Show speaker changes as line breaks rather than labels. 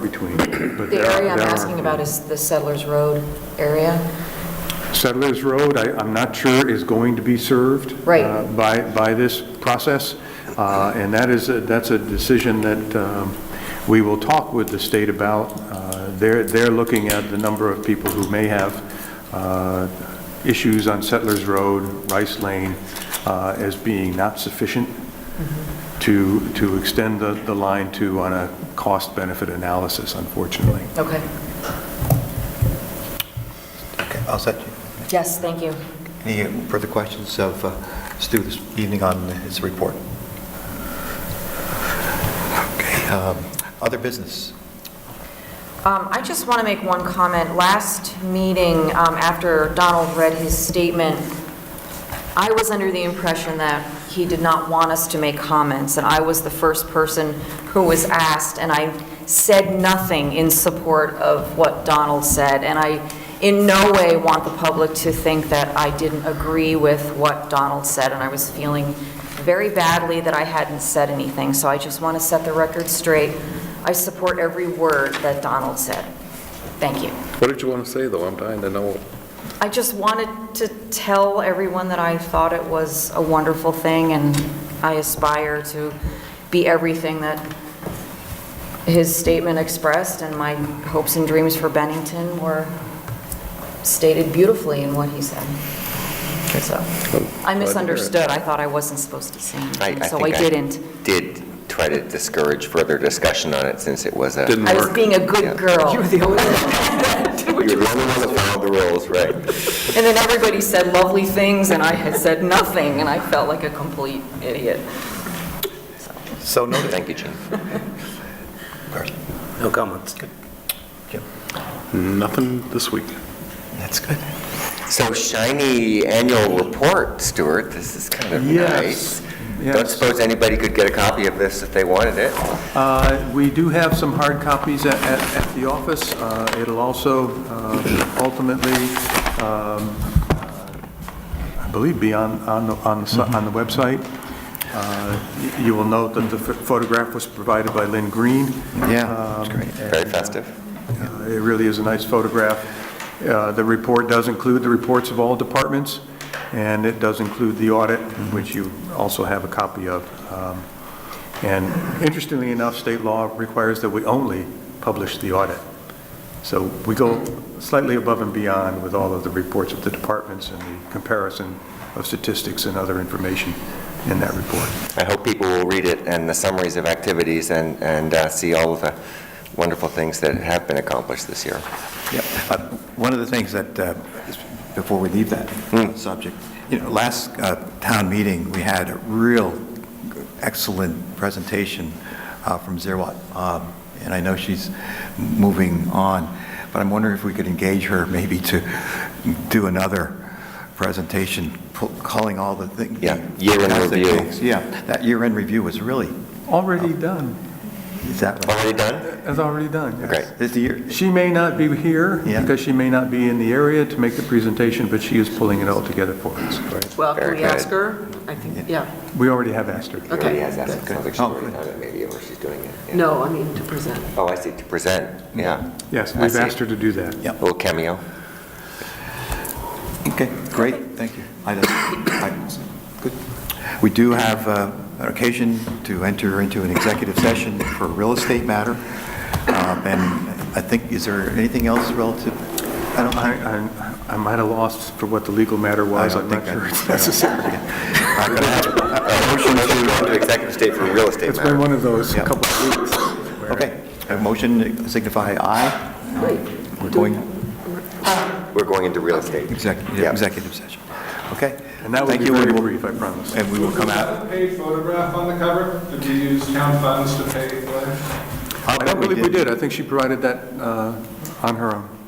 between, but
The
there are...
area I'm
there are-
asking about is the Settlers Road area.
Settlers Road, I- I'm not sure is going to be served.
Right.
uh, By, by this process, Uh, and that is, a- that's a decision that um, we will talk with the state about. Uh, They're, they're looking at the number of people who may have uh, issues on Settlers Road, Rice Lane, uh, as being not sufficient
Mm-hmm.
to, to extend the, the line to on a cost-benefit analysis, unfortunately.
Okay.
Okay, I'll set you.
Yes, thank you.
Any further questions of uh, Stu this evening on his report? Okay, um, Other business?
Um, I just want to make one comment. Last meeting, um, after Donald read his statement, I was under the impression that he did not want us to make comments, and I was the first person who was asked, and I said nothing in support of what Donald said, and I in no way want the public to think that I didn't agree with what Donald said, and I was feeling very badly that I hadn't said anything, so I just want to set the record straight. I support every word that Donald said. Thank you.
What did you want to say, though? I'm dying to know.
I just wanted to tell everyone that I thought it was a wonderful thing, and I aspire to be everything that his statement expressed, and my hopes and dreams for Bennington were stated beautifully in what he said. So, I misunderstood, I thought I wasn't supposed to say anything, so I
think
didn't.
Did try to discourage further discussion on it since it was a.
Didn't
I was
work.
being a
Yeah.
good girl.
You were the only one that followed the rules, right?
And then everybody said lovely things, and I had said nothing, and I felt like a complete idiot.
So noted.
Thank you, Gene.
Carson.
No comments.
Jim,
Nothing this week.
That's good.
So shiny annual report, Stuart, this is kind of
Yes,
nice. Don't
yes.
suppose anybody could get a copy of this if they wanted it?
Uh, We do have some hard copies at, at at the office. Uh, It'll also uh, ultimately, um, I believe, be on, on, the- on the si- on the website. Uh, y- You will note that the ph- photograph was provided by Lynn Green.
Yeah, it's great.
Very festive.
Uh, It really is a nice photograph. Uh, The report does include the reports of all departments, and it does include the audit, which you also have a copy of. Um, And interestingly enough, state law requires that we only publish the audit. So we go slightly above and beyond with all of the reports of the departments and the comparison of statistics and other information in that report.
I hope people will read it and the summaries of activities and, and uh, see all of the wonderful things that have been accomplished this year.
Yep. Uh, One of the things that, uh, is- before we leave that
Hmm.
subject, you know, last uh, town meeting, we had a real excellent presentation uh, from Zerwatt, um, and I know she's moving on, but I'm wondering if we could engage her maybe to do another presentation, pu- calling all the things.
Yeah, year in review.
Yeah, that year-end review was really,
Already done.
is that,
Already done?
It's already done, yes.
Great.
is the year,
She may not be here,
Yeah.
because she may not be in the area to make the presentation, but she is pulling it all together for us.
Well, can
Very
we ask
good.
her? I think, yeah.
We already have asked her.
Okay.
Already has that. It Sounds like she's
Oh,
already
good.
done it, maybe, or she's doing it. yeah.
No, I mean to present.
Oh, I see, to present, yeah.
Yes,
I
we've
see.
asked her to do that.
A little cameo.
Okay, great, thank you. I don't- I- Good. We do have uh, an occasion to enter into an executive session for a real estate matter, Um, and I think, is there anything else relative? I don't
I,
I-
I- I might have lost for what the legal matter
I
was,
don't
I'm not
think I-
sure it's
I don't-
necessary.
I'm gonna have-
Uh, Motion to go into executive state for real estate
It's been
matter.
one of those
Yeah.
couple of weeks. where-
Okay, a motion signify aye. We're going
We're going into real estate.
exec-
Yeah.
executive session. Okay?
And that will
Thank
be
you, and
very
we'll-
brief, I promise.
And we will come out.
Is that a paid photograph on the cover? Did you use town funds to pay for it?
I don't believe we did, I think she provided that uh, on her own.